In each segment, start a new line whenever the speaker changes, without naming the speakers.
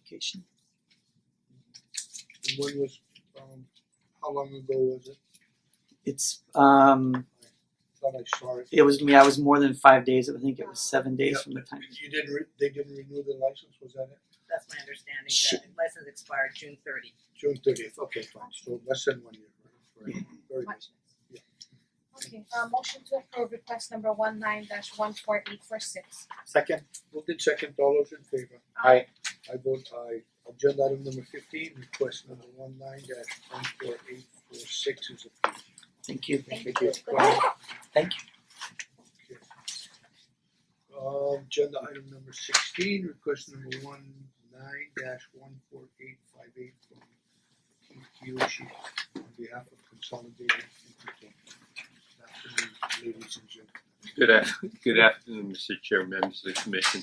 application.
And when was um how long ago was it?
It's um
Thought I saw it.
it was yeah, it was more than five days, I think it was seven days from the time.
You didn't re- they didn't renew the license, was that it?
That's my understanding,
Sure.
the license expired June thirty.
June thirtieth, okay, fine, so less than one year, right? Right. Very good.
Much
Yeah.
less. Okay, uh motion to approve request number one nine dash one four eight four six.
Second. Moved in second, all those in favor?
Aye.
I vote aye. Agenda item number fifteen, request number one nine dash one four eight four six is approved.
Thank you.
Thank
Thank
you.
you.
Good luck.
Thank
you. Um agenda item number sixteen, request number one nine dash one four eight five eight from Keith Kiyoshi on behalf of Consolidated Entertainment. Good afternoon, ladies and gentlemen.
Good af- good afternoon, Mr. Chair, members of the commission.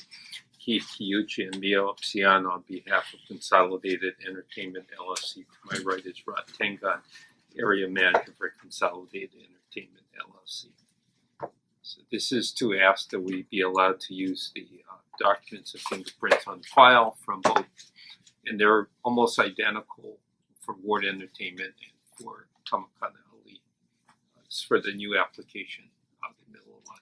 Keith Kiyuchi and Mio Upsiano on behalf of Consolidated Entertainment LLC. To my right is Rod Tengon, area manager for Consolidated Entertainment LLC. So this is to ask that we be allowed to use the uh, documents and fingerprints on file from both, and they're almost identical for Ward Entertainment and for Tamakana Ali. Uh, It's for the new application out in the middle of line.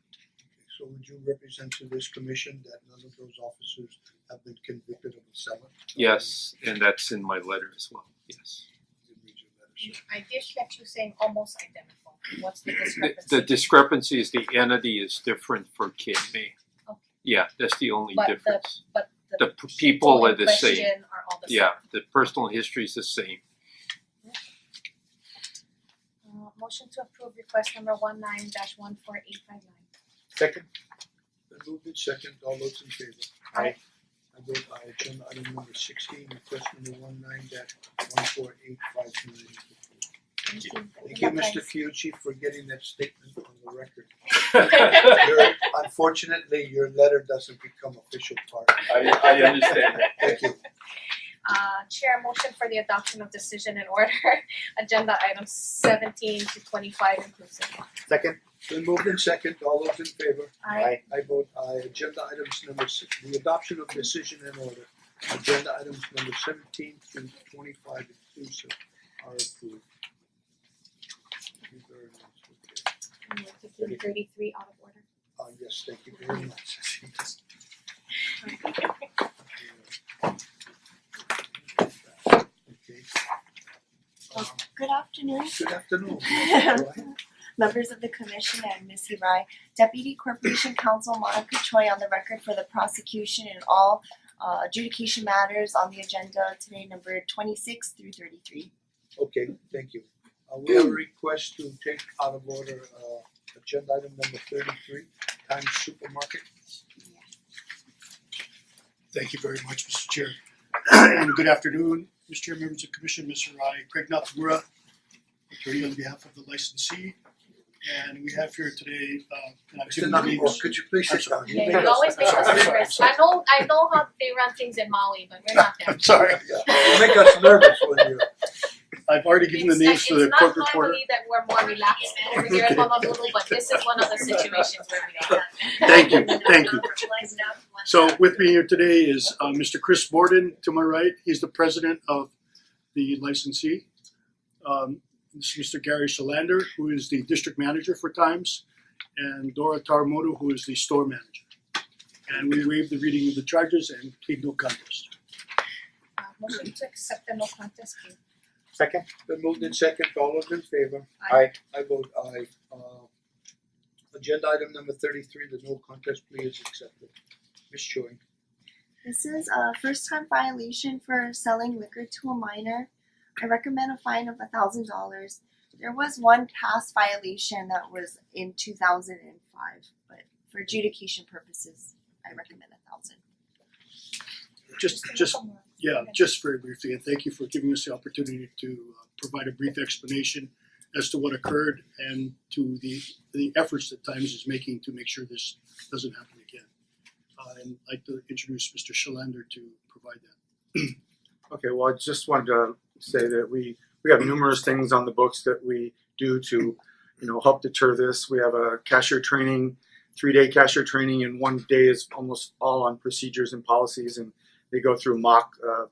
So would you represent to this commission that none of those officers have been convicted of a felon?
Yes, and that's in my letter as well, yes.
You read your letter, sir.
I did catch you saying almost identical, what's the
The
discrepancy?
the discrepancy is the entity is different for KMA.
Okay.
Yeah, that's the only
But the-
difference.
But the
The p- people
in
are the same,
question are all the same.
yeah, the personal history is the same.
Uh motion to approve request number one nine dash one four eight five nine.
Second,
Then moved in second, all those in favor?
Aye.
I vote aye, agenda item number sixteen, request number one nine dash one four eight five nine.
Thank you.
Thank you, Mr. Kyuchi, for getting that statement on the record. Your- Unfortunately, your letter doesn't become official part.
I I understand that.
Thank you.
Uh Chair, motion for the adoption of decision and order, agenda items seventeen to twenty five inclusive.
second,
Then moved in second, all those in favor?
Aye.
I vote aye, agenda items number six, the adoption of decision and order. Agenda items number seventeen through twenty-five inclusive are approved. Thank you very much.
And fifteen thirty three out of order.
Uh yes, thank you very much. Okay. Um,
Good afternoon,
Good afternoon. Go ahead.
members of the commission and Ms. Hirai. Deputy Corporation Counsel Monica Choi on the record for the prosecution in all uh, adjudication matters on the agenda today, number twenty-six through thirty-three.
Okay, thank you. Uh we have a request to take out of order uh agenda item number thirty-three, Times Supermarket.
Thank you very much, Mr. Chair. And good afternoon, Mr. Chair, members of Commission, Mr. Rai, Craig Nakamura, attorney on behalf of the licensee. And we have here today, uh, and I'm
Mr.
giving
Nakamura, could you please sit down? You
Yeah,
made
you
us-
always make
I'm
us
sorry, I'm
nervous.
sorry.
I know, I know how they run things in Maui, but we're not there.
I'm sorry,
Yeah, you make us nervous when you
I've already given the names
It's-
to the court reporter.
It's not Maui that we're more relaxed over here in Honolulu, but this is one of the situations where we are.
Thank you, thank you. So with me here today is uh Mr. Chris Borden to my right, he's the president of the licensee. Um this is Mr. Gary Shalander, who is the district manager for Times, and Dora Taramoto, who is the store manager. And we waive the reading of the charges and plead no contest.
Uh, motion to accept the no contest plea.
second,
Been moved in second, all those in favor?
Aye.
I vote aye. Uh agenda item number thirty-three, the no contest plea is accepted. Ms. Choi.
This is a first-time violation for selling liquor to a minor. I recommend a fine of a thousand dollars. There was one past violation that was in two thousand and five, but for adjudication purposes, I recommend a thousand.
Just
Mr.
just
Nakamura.
Yeah, just very briefly, and thank you for giving us the opportunity to uh, provide a brief explanation as to what occurred and to the the efforts that Times is making to make sure this doesn't happen again. Uh, and I'd like to introduce Mr. Shalander to provide that.
okay, well, I just wanted to say that we, we have numerous things on the books that we do to, you know, help deter this. We have a cashier training, three-day cashier training, and one day is almost all on procedures and policies, and they go through mock, uh,